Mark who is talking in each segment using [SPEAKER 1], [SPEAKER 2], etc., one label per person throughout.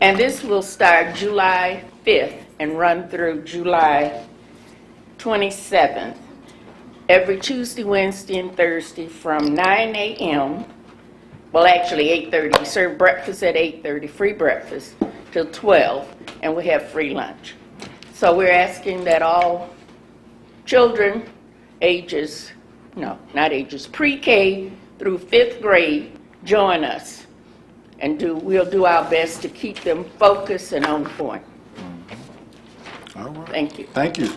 [SPEAKER 1] And this will start July 5th and run through July 27th. Every Tuesday, Wednesday, and Thursday from 9 a.m., well, actually 8:30, we serve breakfast at 8:30, free breakfast, till 12, and we have free lunch. So we're asking that all children ages, no, not ages, pre-K through fifth grade, join us. And do, we'll do our best to keep them focused and on point.
[SPEAKER 2] All right.
[SPEAKER 1] Thank you.
[SPEAKER 2] Thank you.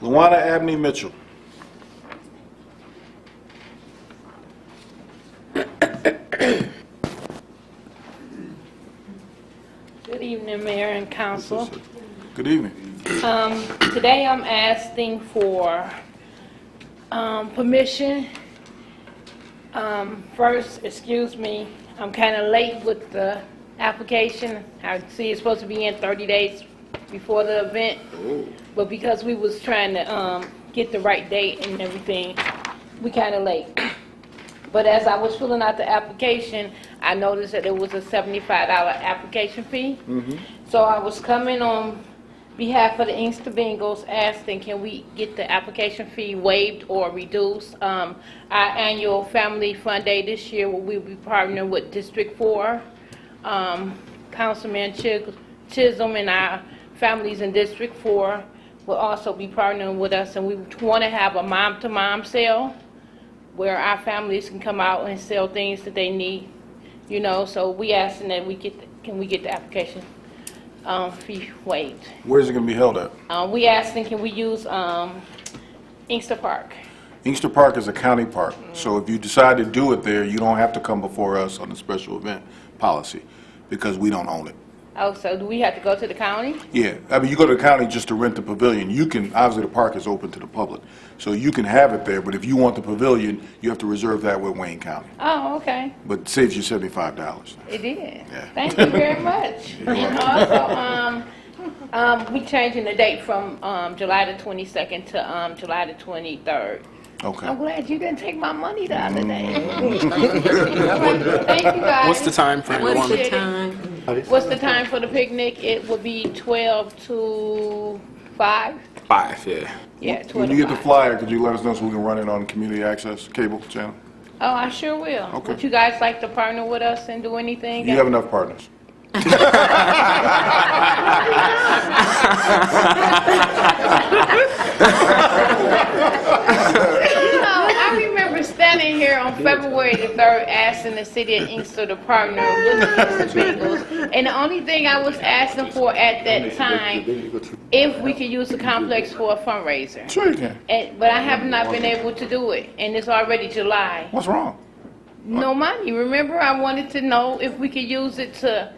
[SPEAKER 2] Luana Abney Mitchell.
[SPEAKER 3] Good evening, Mayor and Council.
[SPEAKER 2] Good evening.
[SPEAKER 3] Um, Today, I'm asking for um, permission. Um, First, excuse me, I'm kind of late with the application. I see it's supposed to be in 30 days before the event, but because we was trying to um, get the right date and everything, we kind of late. But as I was filling out the application, I noticed that there was a $75 application fee. So I was coming on behalf of the Inkster Bengals asking, can we get the application fee waived or reduced? Um, Our annual family fun day this year, we will be partnering with District 4. Um, Councilman Chis- Chisholm and our families in District 4 will also be partnering with us, and we want to have a mom-to-mom sale where our families can come out and sell things that they need, you know, so we asking that we get, can we get the application um, fee waived?
[SPEAKER 2] Where's it going to be held at?
[SPEAKER 3] Uh, We asking, can we use um, Inkster Park?
[SPEAKER 2] Inkster Park is a county park, so if you decide to do it there, you don't have to come before us on the special event policy, because we don't own it.
[SPEAKER 3] Oh, so do we have to go to the county?
[SPEAKER 2] Yeah, I mean, you go to the county just to rent the pavilion. You can, obviously, the park is open to the public, so you can have it there, but if you want the pavilion, you have to reserve that with Wayne County.
[SPEAKER 3] Oh, okay,
[SPEAKER 2] But it saves you $75.
[SPEAKER 3] it did.
[SPEAKER 2] Yeah.
[SPEAKER 3] Thank you very much. And also, um, um, we changing the date from um, July the 22nd to um, July the 23rd. I'm
[SPEAKER 2] Okay.
[SPEAKER 3] glad you didn't take my money the other day. Thank you, guys.
[SPEAKER 4] Mm-hmm. What's the time frame?
[SPEAKER 3] What's
[SPEAKER 4] Luana?
[SPEAKER 3] the time? What's the time for the picnic? It would be 12 to 5?
[SPEAKER 4] Five, yeah.
[SPEAKER 3] Yeah,
[SPEAKER 2] When
[SPEAKER 3] 12
[SPEAKER 2] you
[SPEAKER 3] to
[SPEAKER 2] get the
[SPEAKER 3] 5.
[SPEAKER 2] flyer, could you let us know so we can run it on community access cable channel?
[SPEAKER 3] Oh, I sure will.
[SPEAKER 2] Okay.
[SPEAKER 3] Would you guys like to partner with us and do anything?
[SPEAKER 2] You have enough partners.
[SPEAKER 3] No, I remember standing here on February the 3rd asking the city of Inkster to partner with the Inkster Bengals. And the only thing I was asking for at that time, if we could use the complex for a fundraiser.
[SPEAKER 2] Sure you can.
[SPEAKER 3] And- But I have not been able to do it, and it's already July.
[SPEAKER 2] What's wrong?
[SPEAKER 3] No money. Remember, I wanted to know if we could use it to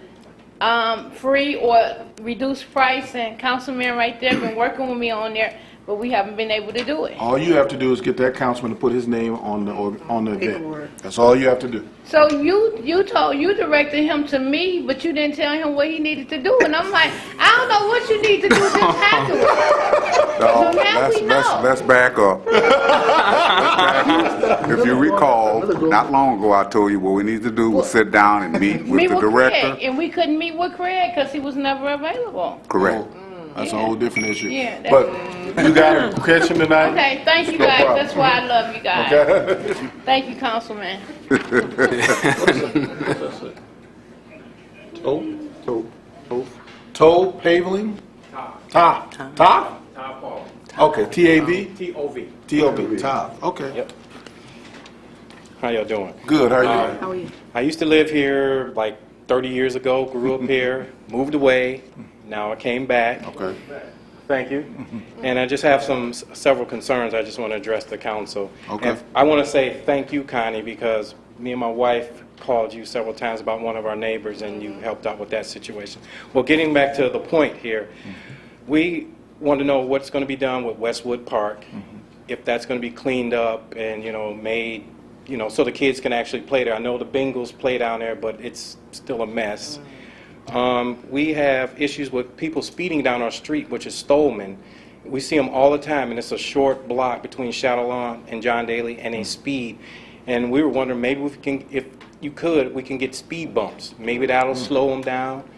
[SPEAKER 3] um, free or reduce price, and councilman right there been working with me on there, but we haven't been able to do it.
[SPEAKER 2] All you have to do is get that councilman to put his name on the, org- on the event. That's all you have to do.
[SPEAKER 3] So you, you told, you directed him to me, but you didn't tell him what he needed to do, and I'm like, I don't know what you need to do, just tackle it.
[SPEAKER 5] No,
[SPEAKER 3] So now
[SPEAKER 5] let's,
[SPEAKER 3] we
[SPEAKER 5] let's,
[SPEAKER 3] know. Mm,
[SPEAKER 5] let's back up. Let's back up. If you recall, not long ago, I told you what we need to do was sit down and meet
[SPEAKER 3] Meet
[SPEAKER 5] with the
[SPEAKER 3] Craig,
[SPEAKER 5] director.
[SPEAKER 3] And we couldn't meet with Craig, because he was never available.
[SPEAKER 5] Correct.
[SPEAKER 2] That's a whole different issue.
[SPEAKER 3] Yeah, that's-
[SPEAKER 2] But you got to catch him tonight.
[SPEAKER 3] Okay, thank you
[SPEAKER 2] No
[SPEAKER 3] guys,
[SPEAKER 2] problem.
[SPEAKER 3] that's why I love you guys. Thank you, councilman.
[SPEAKER 2] Toe, toe, toe. Toe paveling? Top. Top? Top? Okay, T-A-V?
[SPEAKER 6] T-O-V.
[SPEAKER 2] T-O-V, top, okay.
[SPEAKER 6] How y'all doing?
[SPEAKER 2] Good, how are you?
[SPEAKER 6] I used to live here like 30 years ago, grew up here, moved away, now I came back.
[SPEAKER 2] Okay.
[SPEAKER 6] Thank you. And I just have some, s- several concerns I just want to address the council.
[SPEAKER 2] Okay.
[SPEAKER 6] And I want to say thank you, Connie, because me and my wife called you several times about one of our neighbors, and you helped out with that situation. Well, getting back to the point here, we want to know what's going to be done with Westwood Park, if that's going to be cleaned up and, you know, made, you know, so the kids can actually play there. I know the Bengals play down there, but it's still a mess. Um, We have issues with people speeding down our street, which is Stolman. We see them all the time, and it's a short block between Shadow Lawn and John Daly, and they speed. And we were wondering, maybe we can, if you could, we can get speed bumps. Maybe that'll slow them down.